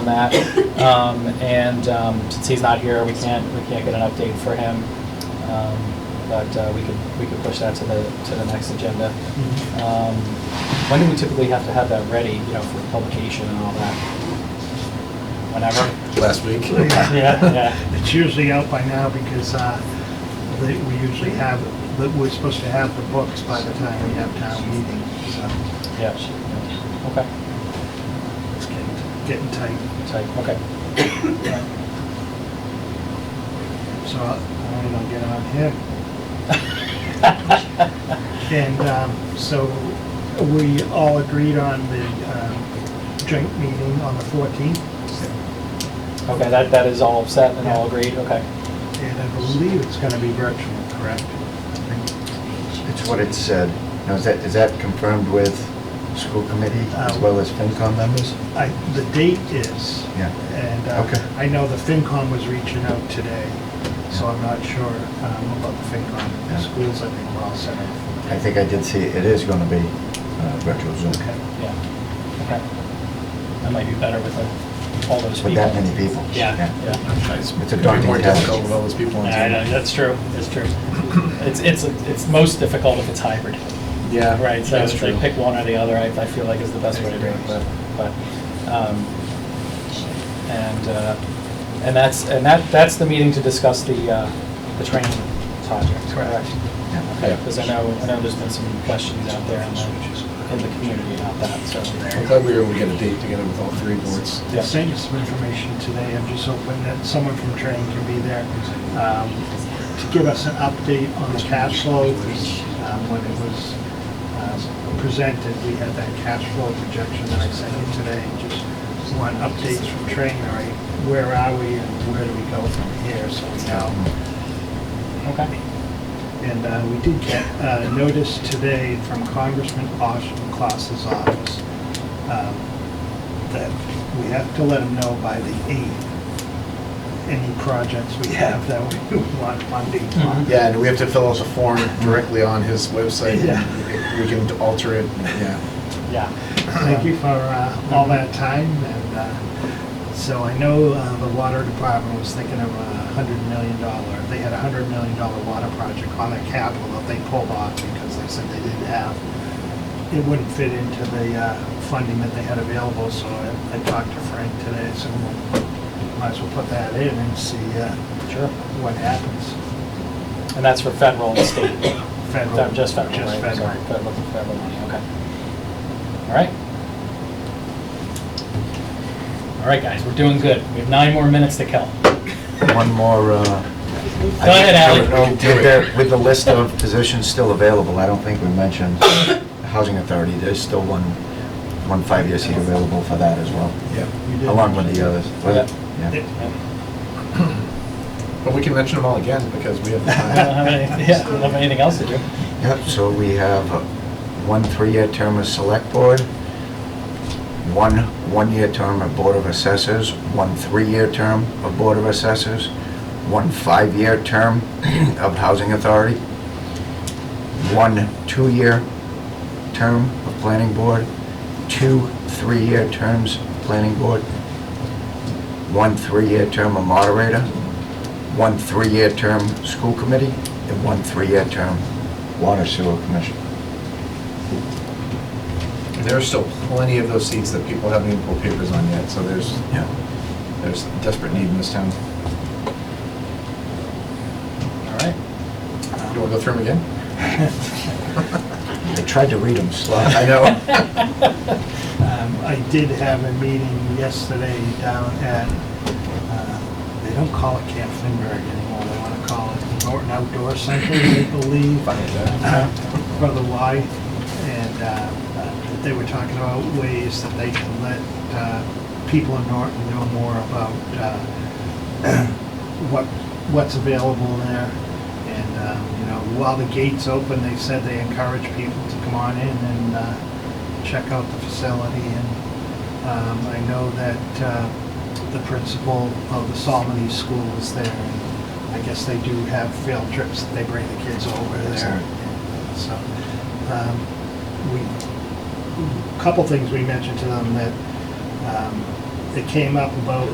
on that. Um, and um, since he's not here, we can't, we can't get an update for him. Um, But uh, we could, we could push that to the, to the next agenda. Um, When do we typically have to have that ready, you know, for publication and all that? Whenever? last week. Yeah, yeah. It's usually out by now because uh, they- we usually have, that we're supposed to have the books by the time we have town meeting, so Yeah. Okay, it's getting getting tight. tight, okay. So uh, I wanted to get on him. And um, so we all agreed on the um, joint meeting on the 14th. Okay, that, that is all set and all agreed, okay. And I believe it's going to be virtual, correct? It's what it said. Now, is that, is that confirmed with school committee as well as FinCom members? I, the date is. Yeah. And uh, Okay. I know the FinCom was reaching out today, so I'm not sure um, about the FinCom. The Yeah. schools, I think, were all set up. I think I did see, it is going to be uh, virtual Zoom. Okay. Yeah, okay. That might be better with uh, all those people. With that many people. Yeah, yeah. It's It's a daunting More task. difficult with all those people on I know, Zoom. that's true, that's true. It's, it's, it's most difficult if it's hybrid, Yeah. right? So that's it's like true. pick one or the other, I, I feel like is the best way to do it, but, but, um, and, uh, and that's, and that, that's the meeting to discuss the, uh, the training project, correct? Yeah. Okay, Yeah. because I know, I know there's been some questions out there in the, in the community about that, so. I'm glad we were able to get a date together with all three boards. Yeah. They sent you some information today. I'm just hoping that someone from training can be there um, to give us an update on the cash flow. because, um, When it was um, presented, we had that cash flow projection that I sent you today. Just want updates from training, all right? Where are we and where do we go from here? So we know. Okay. And uh, we did get uh, notice today from Congressman Osh Klaus's office um, that we have to let him know by the 8th any projects we have that we want funding on. Yeah, and we have to fill out the form directly on his website. and Yeah. We can alter it, yeah. Yeah. Thank you for uh, all that time, and uh, so I know uh, the water department was thinking of a hundred million dollar, they had a hundred million dollar water project on their capital that they pulled off because they said they didn't have, it wouldn't fit into the uh, funding that they had available, so I I talked to Frank today, so we'll- might as well put that in and see uh, Sure. what happens. And that's for federal and state? Fe- Just federal, Just right? Sorry, Federal, federal. federal money, okay. All right. All right, guys, we're doing good. We have nine more minutes to kill. One more. uh, I Go ahead, Alan. think- no, We can do With it. the, with the list of positions still available, I don't think we mentioned the Housing Authority. There's still one, one five-year seat available for that as well, Yeah. You did- along with the uh, others. Yeah. Yeah. But we can mention them all again because we have the I don't time. have any- yeah, I don't have anything else to do. Yep, so we have uh, one three-year term as Select Board, one one-year term of Board of Assessors, one three-year term of Board of Assessors, one five-year term of Housing Authority, one two-year term of Planning Board, two three-year terms of Planning Board, one three-year term of Moderator, one three-year term School Committee, and one three-year term Water Sewer Commission. There are still plenty of those seats that people haven't even pulled papers on yet, so there's, Yeah. there's desperate need in this town. All right. Do you want to go through them again? I tried to read them slow. I know. Um, I did have a meeting yesterday down at, uh, they don't call it Camp Finberg anymore, they want to call it Norton Outdoor Center, I believe, Funny, though. uh, Brother Y. And uh, uh, they were talking about ways that they can let uh, people in Norton know more about uh, what, what's available there. And, uh, you know, while the gate's open, they said they encourage people to come on in and uh, check out the facility, and um, I know that uh, the principal of the Salmonese School is there, and I guess they do have field trips, that they bring the kids over there. Excellent. So, um, we, couple things we mentioned to them that um, it came up about